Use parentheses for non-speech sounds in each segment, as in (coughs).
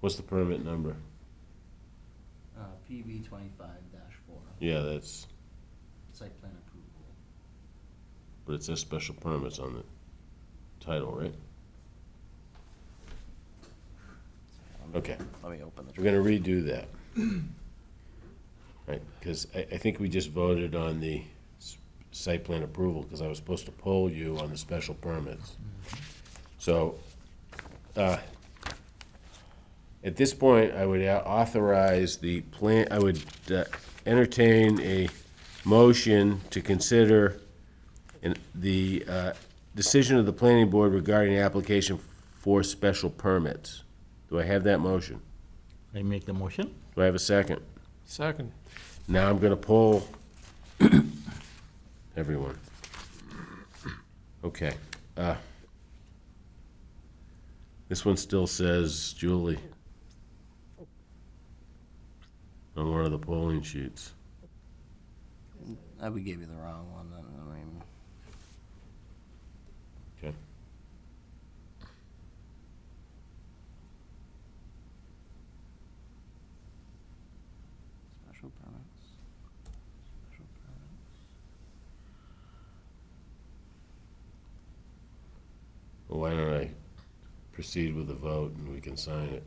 What's the permit number? Uh, PB twenty-five dash four, Yeah, that's, site plan approval. but it says special permits on the title, right? Okay. Let me open the. We're gonna redo that. Right, because I, I think we just voted on the s- site plan approval, because I was supposed to poll you on the special permits. So, uh, at this point, I would au- authorize the plan, I would uh, entertain a motion to consider in the, uh, decision of the planning board regarding the application for special permits. Do I have that motion? I make the motion. Do I have a second? Second. Now I'm gonna poll (coughs) everyone. Okay, uh, this one still says Julie on one of the polling sheets. Uh, we gave you the wrong one, then, I mean, Okay. special permits. Special permits. Well, why don't I proceed with the vote and we can sign it?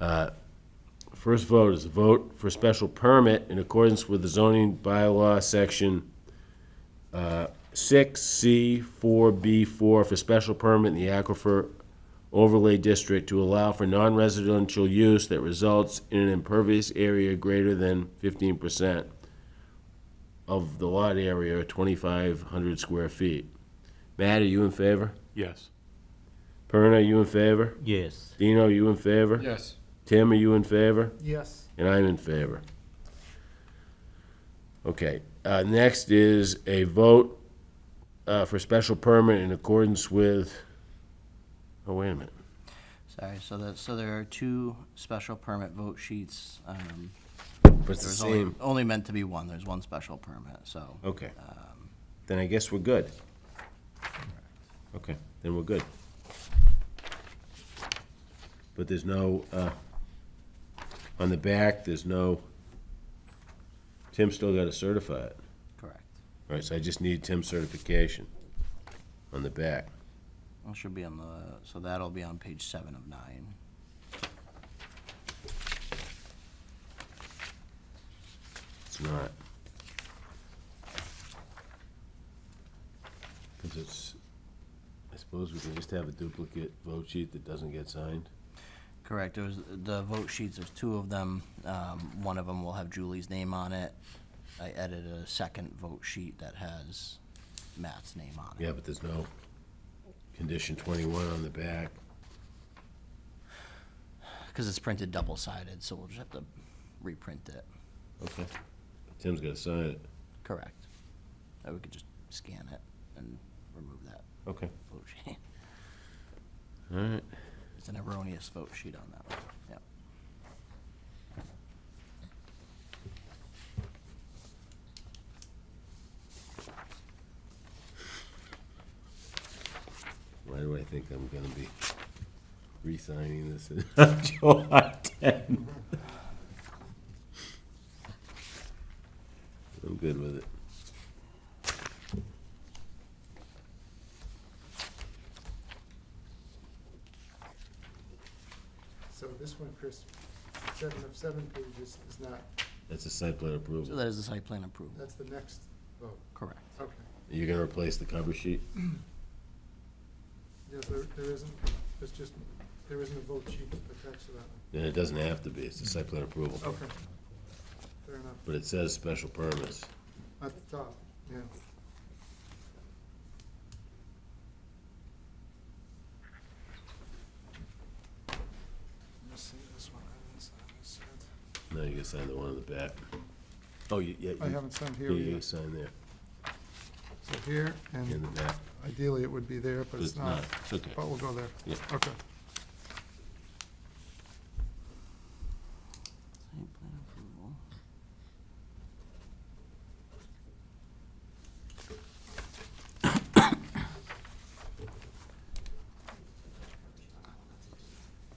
Uh, First vote is a vote for special permit in accordance with the zoning bylaw section uh, six C four B four for special permit in the aquifer overlay district to allow for non-residential use that results in an impervious area greater than fifteen percent of the lot area, twenty-five hundred square feet. Matt, are you in favor? Yes. Perna, are you in favor? Yes. Dino, are you in favor? Yes. Tim, are you in favor? Yes. And I'm in favor. Okay, uh, next is a vote, uh, for special permit in accordance with, oh, wait a minute. Sorry, so that, so there are two special permit vote sheets. Um, But it's the there's only, same, Oh. only meant to be one, there's one special permit, so. okay. Then I guess we're good. Okay, then we're good. But there's no, uh, on the back, there's no, Tim still gotta certify it. Correct. All right, so I just need Tim's certification on the back. It should be on the, so that'll be on page seven of nine. It's not. Because it's, I suppose we can just have a duplicate vote sheet that doesn't get signed. Correct, there was, the vote sheets, there's two of them. Um, one of them will have Julie's name on it. I edited a second vote sheet that has Matt's name on it. Yeah, but there's no condition twenty-one on the back. Because it's printed double-sided, so we'll just have to reprint it. Okay. Tim's gotta sign it. Correct. Or we could just scan it and remove that Okay. vote (laughs) sheet. All right. It's an erroneous vote sheet on that one, yeah. Why do I think I'm gonna be re-signing this in (laughs) July 10? I'm good with it. So this one, Chris, seven of seven pages is not, That's a site plan So approval. that is the site plan approval, that's the next vote. correct. Okay. You're gonna replace the cover sheet? Yes, there, there isn't, there's just, there isn't a vote sheet attached to that Then it doesn't have to be, it's a site plan approval. one. Okay. Fair enough. But it says special permits. At the top, yeah. Let me see this one. I haven't signed this yet. No, you can sign the one on the back. Oh, you, yeah. I you- haven't signed yeah, here You can yet. sign there, So here, in and the back. ideally it would be there, but it's not. It's okay. But we'll go there. Yeah. Okay.